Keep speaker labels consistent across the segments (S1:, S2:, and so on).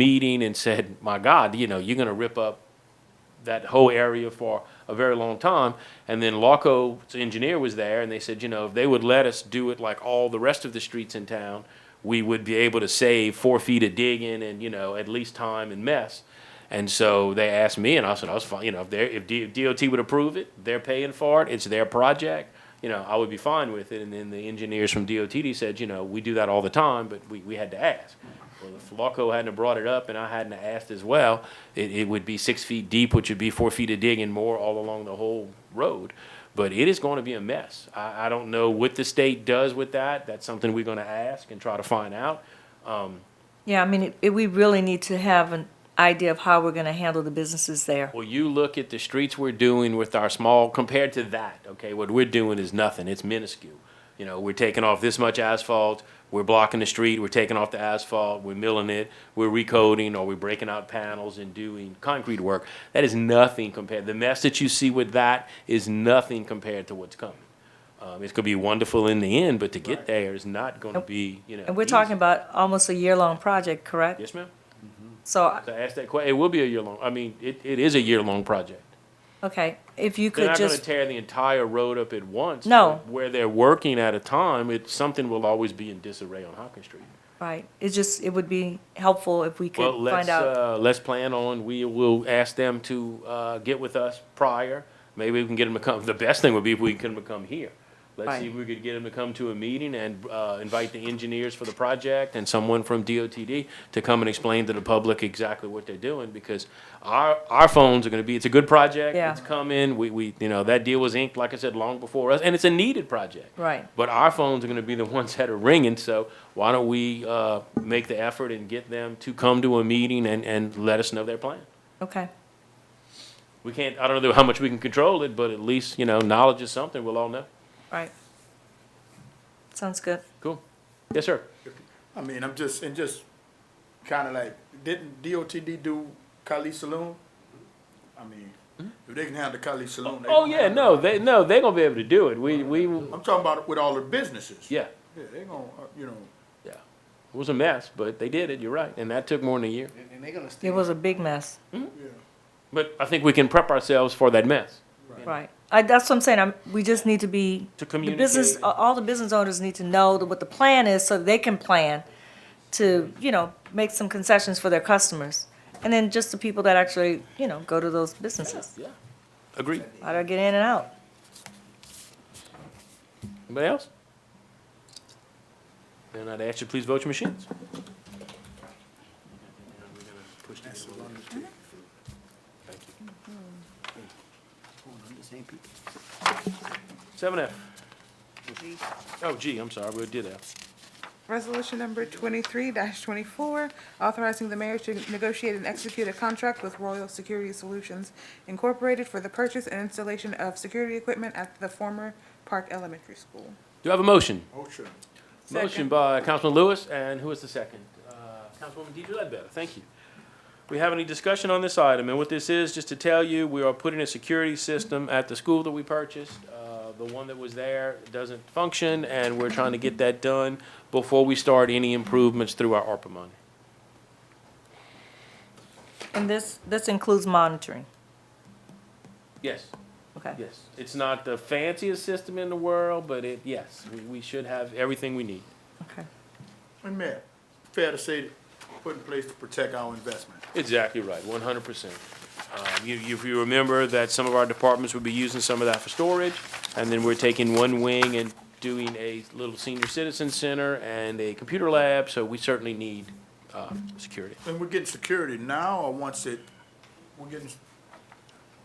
S1: meeting and said, my God, you know, you're gonna rip up that whole area for a very long time. And then Lawco's engineer was there and they said, you know, if they would let us do it like all the rest of the streets in town, we would be able to save four feet of digging and, you know, at least time and mess. And so they asked me and I said, I was fine, you know, if they if D- DOT would approve it, they're paying for it, it's their project, you know, I would be fine with it. And then the engineers from DOTD said, you know, we do that all the time, but we, we had to ask. Well, if Flacco hadn't have brought it up and I hadn't have asked as well, it, it would be six feet deep, which would be four feet of digging more all along the whole road. But it is going to be a mess. I, I don't know what the state does with that. That's something we're going to ask and try to find out.
S2: Yeah, I mean, it- it, we really need to have an idea of how we're gonna handle the businesses there.
S1: Well, you look at the streets we're doing with our small, compared to that, okay, what we're doing is nothing, it's minuscule. You know, we're taking off this much asphalt, we're blocking the street, we're taking off the asphalt, we're milling it, we're recoding, or we're breaking out panels and doing concrete work. That is nothing compared, the mess that you see with that is nothing compared to what's coming. Um, it's gonna be wonderful in the end, but to get there is not gonna be, you know.
S2: And we're
S1: easy.
S2: talking about almost a year-long project, correct?
S1: Yes, ma'am.
S2: So, uh,
S1: So ask that que, it will be a year long, I mean, it, it is a year-long project.
S2: okay, if you
S1: They're
S2: could
S1: not gonna
S2: just,
S1: tear the entire road up at once.
S2: No.
S1: but Where they're working at a time, it, something will always be in disarray on Hopkins Street.
S2: right, it just, it would be helpful if we
S1: Well,
S2: could
S1: let's,
S2: find out.
S1: uh, let's plan on, we will ask them to, uh, get with us prior. Maybe we can get them to come, the best thing would be if we can come here. Let's see if we could get them to come to a meeting and, uh, invite the engineers for the project and someone from DOTD to come and explain to the public exactly what they're doing, because our, our phones are gonna be, it's a good project.
S2: Yeah.
S1: It's coming, we, we, you know, that deal was inked, like I said, long before us, and it's a needed project.
S2: Right.
S1: But our phones are going to be the ones that are ringing, so why don't we uh, make the effort and get them to come to a meeting and, and let us know their plan?
S2: Okay,
S1: We can't, I don't know how much we can control it, but at least, you know, knowledge is something, we'll all know.
S2: right. Sounds good.
S1: Cool. Yes, sir.
S3: I mean, I'm just, and just kind of like, didn't DOTD do Kali Saloon? I mean, if they can handle Kali Saloon. they
S1: Hmm? Oh,
S3: can
S1: yeah,
S3: handle
S1: no,
S3: it.
S1: they, no, they're going to be able to do it. We, we,
S3: I'm talking about with all the businesses.
S1: yeah,
S3: Yeah, they gonna, uh, you know,
S1: yeah. It was a mess, but they did it, you're right, and that took more than a year.
S4: And, and they're gonna stay.
S2: It was a big mess,
S3: yeah,
S1: But I think we can prep ourselves for that mess.
S2: right. I, that's what I'm saying, I'm, we just need to be.
S1: To
S2: The business, uh,
S1: communicate.
S2: a- all the business owners need to know that what the plan is so they can plan to, you know, make some concessions for their customers. And then just the people that actually, you know, go to those businesses.
S1: Yeah. Agreed.
S2: How do I get in and out?
S1: Anybody else? Then I'd ask you, please vote your machines.
S4: The same people.
S1: Seven F. Oh, G, I'm sorry, we did F.
S5: Resolution number twenty-three twenty-four, authorizing the mayor to negotiate and execute a contract with Royal Security Solutions Incorporated for the purchase and installation of security equipment at the former Park Elementary School.
S1: Do I have a motion?
S3: ocean.
S1: Motion by Councilman Lewis, and who is the second? Uh, Councilwoman Deidre Ledbetter, thank you. We have any discussion on this item, and what this is, just to tell you, we are putting a security system at the school that we purchased. Uh, The one that was there doesn't function, and we're trying to get that done before we start any improvements through our ARPA money.
S2: And this, this includes monitoring,
S1: Yes.
S2: okay?
S1: Yes, it's not the fanciest system in the world, but it, yes, we, we should have everything we need.
S2: Okay.
S3: And Mayor, fair to say, that put in place to protect our investment.
S1: Exactly right, one hundred percent. Um, You, you- if you remember that some of our departments would be using some of that for storage, and then we're taking one wing and doing a little senior citizen center and a computer lab, so we certainly need, uh, security.
S3: And we're getting security now or once it, we're getting,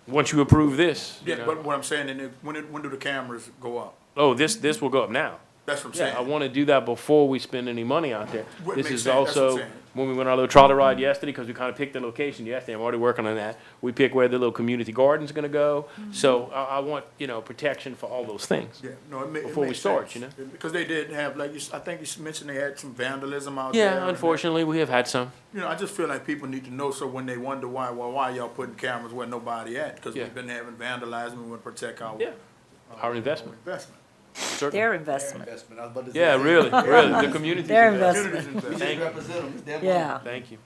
S1: Once you approve this, you
S3: yeah, but
S1: know,
S3: what I'm saying, and it- when it, when do the cameras go up?
S1: oh, this, this will go up now.
S3: That's what I'm saying.
S1: Yeah, I want to do that before we spend any money out there.
S3: What
S1: This
S3: makes
S1: is
S3: sense, that's what I'm
S1: also,
S3: saying.
S1: when we went on our little trolley ride yesterday, because we kind of picked the location yesterday, I'm already working on that. We pick where the little community garden's gonna go, so I, I want, you know, protection for all those things.
S3: Mm-hmm. Yeah, no, it ma- it
S1: Before we
S3: makes
S1: start,
S3: sense.
S1: you know?
S3: It- Because they did have, like, you s- I think you s- mentioned they had some vandalism out there.
S1: Yeah,
S3: and-
S1: unfortunately, we have had some.
S3: You know, I just feel like people need to know, so when they wonder why, why, why y'all putting cameras where nobody at? Because
S1: Yeah.
S3: we've been having vandalism, we want to protect our
S1: Yeah, our investment,
S3: investment.
S1: certainly.
S2: Their
S4: Their
S2: investment,
S4: investment. I was about to say.
S1: Yeah, really, really, the community's
S2: Their
S1: investment.
S3: Community's
S4: We
S3: investment.
S4: just represent them. It's their money.
S2: yeah.
S1: Thank you.